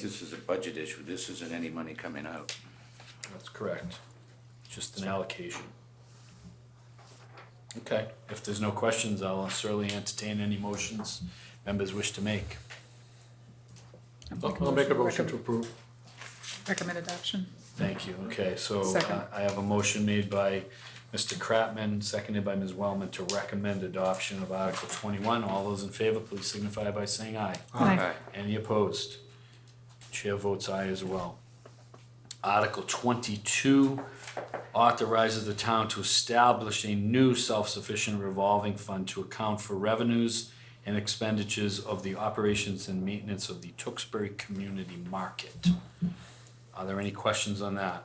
This is a budget issue, this isn't any money coming out. That's correct. Just an allocation. Okay, if there's no questions, I'll certainly entertain any motions members wish to make. I'll make a motion to approve. Recommend adoption. Thank you. Okay, so Second. uh, I have a motion made by Mr. Kratman, seconded by Ms. Wellman to recommend adoption of Article twenty-one. All those in favor, please signify by saying aye. Aye. Any opposed? Chair votes aye as well. Article twenty-two authorizes the town to establish a new self-sufficient revolving fund to account for revenues and expenditures of the operations and maintenance of the Tewksbury Community Market. Are there any questions on that?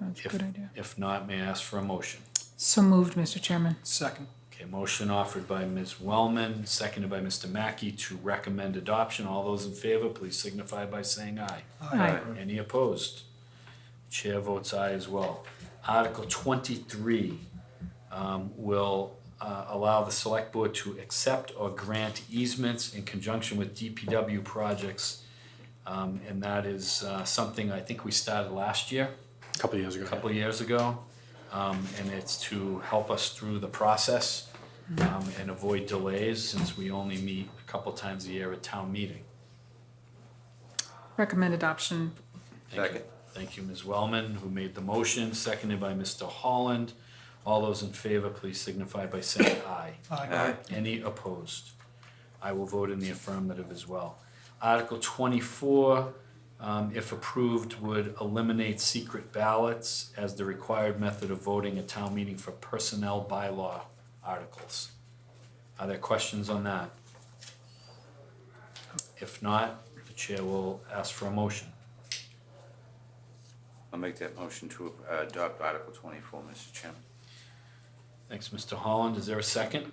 That's a If- good idea. If not, may I ask for a motion? So moved, Mr. Chairman. Second. Okay, motion offered by Ms. Wellman, seconded by Mr. Mackey to recommend adoption. All those in favor, please signify by saying aye. Aye. Any opposed? Chair votes aye as well. Article twenty-three um, will uh, allow the select board to accept or grant easements in conjunction with DPW projects. Um, And that is uh, something I think we started last year, Couple years a ago. couple of years ago. Um, And it's to help us through the process um, and avoid delays since we only meet a couple times a year at town meeting. Recommend adoption. Thank you. Second. Thank you, Ms. Wellman, who made the motion, seconded by Mr. Holland. All those in favor, please signify by saying aye. Aye. Any opposed? I will vote in the affirmative as well. Article twenty-four, um, if approved, would eliminate secret ballots as the required method of voting at town meeting for personnel bylaw articles. Are there questions on that? If not, the chair will ask for a motion. I'll make that motion to uh, adopt Article twenty-four, Mr. Chairman. Thanks, Mr. Holland. Is there a second?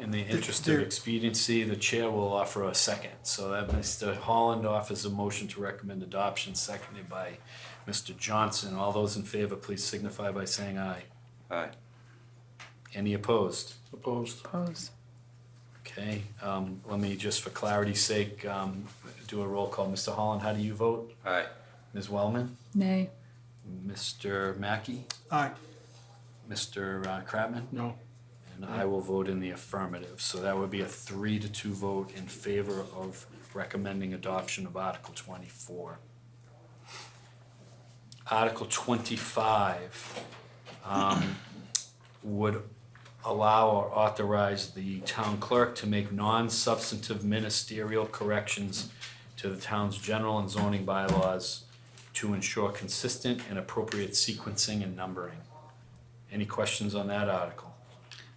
In the interest of there- expediency, the chair will offer a second. So that Mr. Holland offers a motion to recommend adoption, seconded by Mr. Johnson. All those in favor, please signify by saying aye. Aye. Any opposed? Opposed. Opposed. Okay, um, let me, just for clarity's sake, um, do a roll call. Mr. Holland, how do you vote? Aye. Ms. Wellman? Nay. Mr. Mackey, Aye. Mr. uh, Kratman, No. and I will vote in the affirmative. So that would be a three to two vote in favor of recommending adoption of Article twenty-four. Article twenty-five um, would allow or authorize the town clerk to make non-substantive ministerial corrections to the town's general and zoning bylaws to ensure consistent and appropriate sequencing and numbering. Any questions on that article?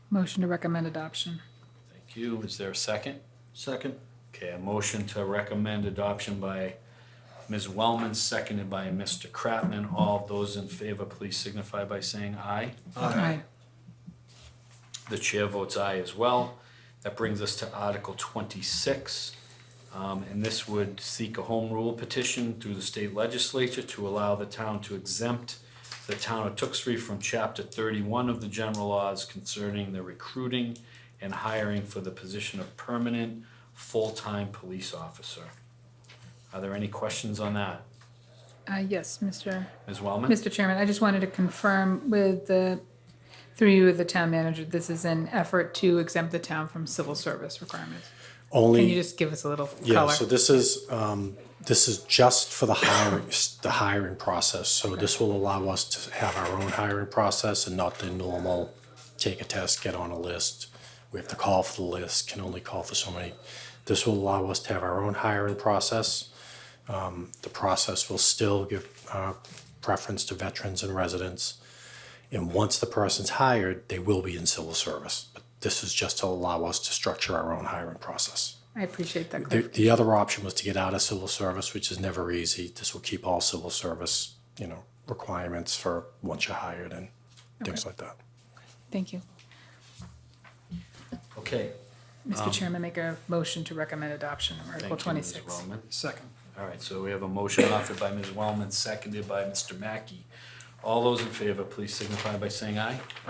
Motion to recommend adoption. Thank you. Is there a second? Second. Okay, a motion to recommend adoption by Ms. Wellman, seconded by Mr. Kratman. All those in favor, please signify by saying aye. Aye. The chair votes aye as well. That brings us to Article twenty-six. Um, and this would seek a home rule petition through the state legislature to allow the town to exempt the town of Tewksbury from chapter thirty-one of the general laws concerning the recruiting and hiring for the position of permanent full-time police officer. Are there any questions on that? Uh, yes, Mr. Ms. Wellman? Mr. Chairman, I just wanted to confirm with the, through you with the town manager, this is an effort to exempt the town from civil service requirements. Can you Only, just give us a little yeah, color? so this is, um, this is just for the hiring, the hiring process. So this will allow us to have our own hiring process and not the normal take a test, get on a list. We have to call for the list, can only call for so many. This will allow us to have our own hiring process. Um, the process will still give, uh, preference to veterans and residents. And once the person's hired, they will be in civil service. But this is just to allow us to structure our own hiring process. I appreciate that The, clarification. the other option was to get out of civil service, which is never easy. This will keep all civil service, you know, requirements for once you're hired and things like that. Thank you. Okay. Mr. Chairman, make a motion to recommend adoption of Thank Article you, Ms. twenty-six. Wellman. Second. All right, so we have a motion offered by Ms. Wellman, seconded by Mr. Mackey. All those in favor, please signify by saying aye.